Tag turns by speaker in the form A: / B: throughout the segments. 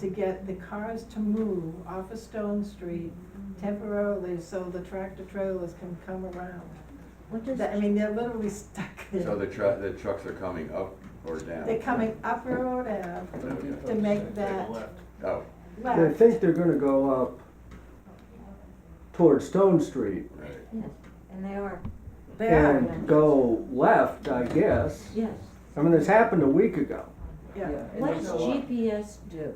A: to get the cars to move off of Stone Street temporarily so the tractor trailers can come around.
B: What does,
A: That- I mean, they're literally stuck
C: So
A: there.
C: the truck, the trucks are coming up or down?
A: They're coming up Railroad Ave, To
C: Okay.
A: make that-
C: Oh,
D: They
A: left,
D: think they're gonna go up towards Stone Street
C: right.
B: yes, and they are,
A: they are,
D: and go left, I guess.
B: yes.
D: I mean, this happened a week ago.
A: yeah.
B: What does GPS do?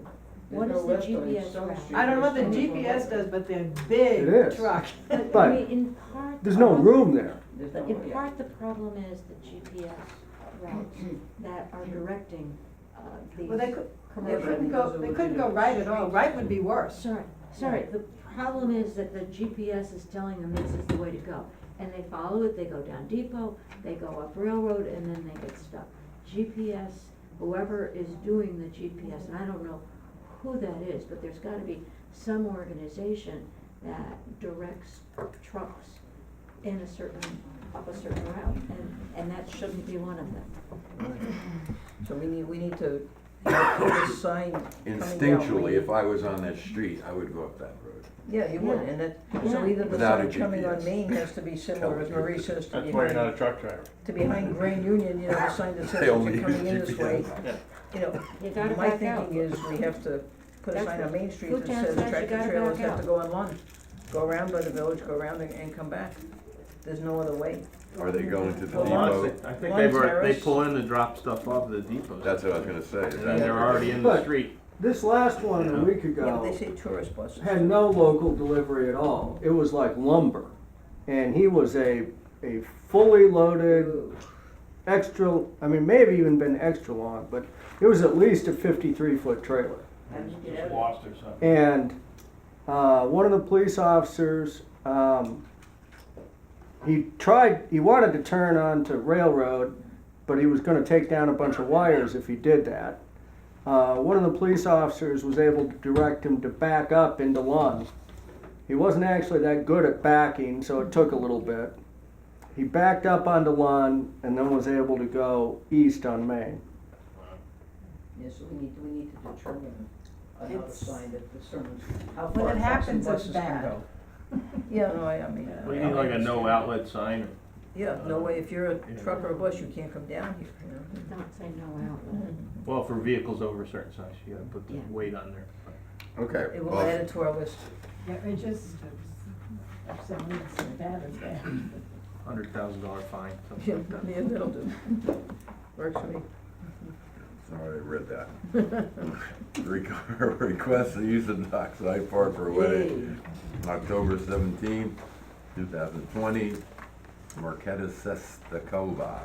B: What does the GPS
A: I don't know what the GPS does, but they're
D: It
A: big
D: is.
A: truck.
B: But, I
D: But
B: mean, in part.
D: There's no
E: Uh-huh.
B: um,
D: room there.
B: But in part, the problem is the GPS routes that are directing, uh, these
A: Well, they could, they
B: commercial.
A: couldn't go, they couldn't go right at all, right would be worse.
B: Sorry, sorry, the problem is that the GPS is telling them this is the way to go, and they follow it, they go down Depot, they go up Railroad, and then they get stuck. GPS, whoever is doing the GPS, and I don't know who that is, but there's gotta be some organization that directs trucks in a certain, up a certain route, and, and that shouldn't be one of them.
E: So we need, we need to, have a sign coming down.
C: Instinctually, if I was on that street, I would go up that road.
E: Yeah, you would, and that, so
B: Yeah.
E: either the
C: Without a
E: sign coming on
C: GPS.
E: Main has to be similar, as Marie says, to
F: That's why you're not a
E: behind,
F: truck driver.
E: to behind Grand Union, you know, the sign that says
C: They
E: that
C: only
E: you're coming in
C: use
E: this way.
C: GPS.
E: You know,
B: You gotta
E: my
B: back out.
E: thinking is we have to put a
B: That's
E: sign
B: what-
E: on Main Street
B: Food
E: that
B: town
E: says
B: says you
E: tractor
B: gotta
E: trailers
B: back
E: have
B: out.
E: to go on one. Go around by the village, go around and, and come back. There's no other way.
C: Are they going to the
E: Well, honestly-
C: depot?
F: I think
E: Lawn
F: they've, already- they
E: terrace.
F: pull in to drop stuff off at the depot.
C: That's what I was gonna say. is
F: And
C: that-
F: then they're already in the
D: But-
F: street.
D: This last one a week
E: Yeah, but
D: ago
E: they say tourist buses.
D: had no local delivery at all. It was like lumber. And he was a, a fully loaded, extra, I mean, maybe even been extra long, but it was at least a fifty-three foot trailer.
F: Just lost or something.
D: And uh, one of the police officers, um, he tried, he wanted to turn onto railroad, but he was going to take down a bunch of wires if he did that. Uh, one of the police officers was able to direct him to back up into Lund. He wasn't actually that good at backing, so it took a little bit. He backed up onto Lund and then was able to go east on Main.
E: Yeah, so we need, we need to determine another
A: It's-
E: sign that determines how
A: When
E: far
A: it
E: trucks and
A: happens, it's
E: buses can
A: bad.
E: go. Oh, Yeah, no, I, I mean. uh, I-
F: We need like a no outlet sign.
E: Yeah, no way, if you're a
F: Yeah.
E: truck or a bus, you can't come down here, you know.
B: Don't say no outlet.
E: Hmm.
F: Well, for vehicles over a certain size, you gotta put the
B: Yeah.
F: weight on there.
C: Okay.
E: It will
C: well,
E: add it to our list.
A: Yeah, it just, if someone is bad as that.
F: Hundred thousand dollar fine,
E: Yeah,
F: something like that.
E: yeah, that'll do. Works for me.
C: Sorry, I read that. Requ- Request the use of Dockside Park for a wedding, October seventeenth, two thousand twenty, Marqueta Sestakova.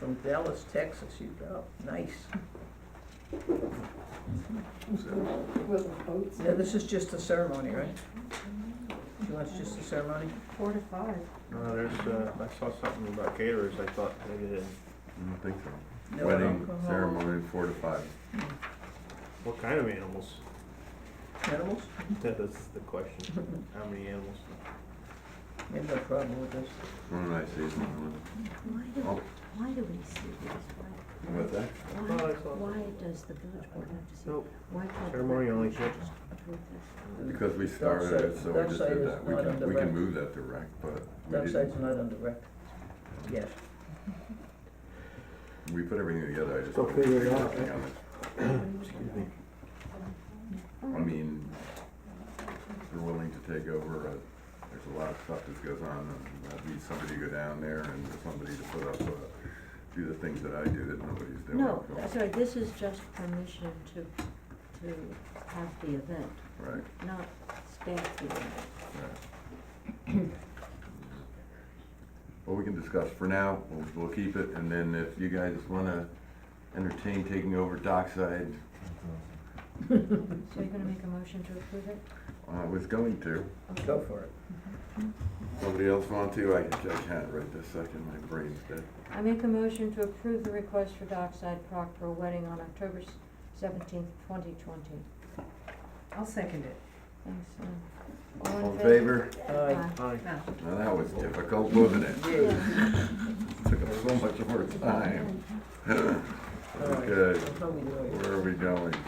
E: From Dallas, Texas, you go, nice.
C: So,
A: With the boats.
E: Now, this is just a ceremony, right? She wants just a ceremony?
B: Four to five.
F: No, there's, uh, I saw something about caterers, I thought maybe they,
C: I don't think so.
E: No
C: Wedding
E: alcohol,
C: ceremony, four to five.
F: what kind of animals?
E: Animals?
F: That's the question, how many animals?
E: We have no problem with this.
C: One nice season.
B: Why do,
C: Oh.
B: why do we see these? Why-
C: What's that?
B: Why,
F: Oh, it's all-
B: why does the village board have to see?
F: Nope.
B: Why can't? the
F: Ceremony only
B: village
F: kids.
B: approve this?
D: Mm.
C: Because we started it, so we just did that. We can, we can move that direct, but we
E: Dockside's
C: didn't.
E: not under rec. Yes.
C: We put everything together, I just.
D: Go
C: don't
D: figure it out,
C: nothing
D: right?
C: on it. I mean, if you're willing to take over, uh, there's a lot of stuff that goes on, and I'd need somebody to go down there and somebody to put up, uh, do the things that I do that nobody's doing.
B: No,
C: so,
B: sorry, this is just permission to, to have the event,
C: Right,
B: not staff the event.
C: right. Well, we can discuss for now, we'll, we'll keep it, and then if you guys wanna entertain taking over Dockside,
B: So you're gonna make a motion to approve it?
C: I uh, was going to.
E: Go for it.
C: Somebody else want to? I, I can't right this second, my brain's dead.
B: I make a motion to approve the request for Dockside Proc for a wedding on October seventeenth, twenty twenty.
A: I'll second it.
B: Thanks, Lynn.
C: All in favor?
E: Aye.
F: Aye.
C: Now, that was difficult, wasn't it?
E: Yeah.
C: Took up so much of our time.
E: All right.
C: Okay,
E: I'll probably do it.
C: where are we going?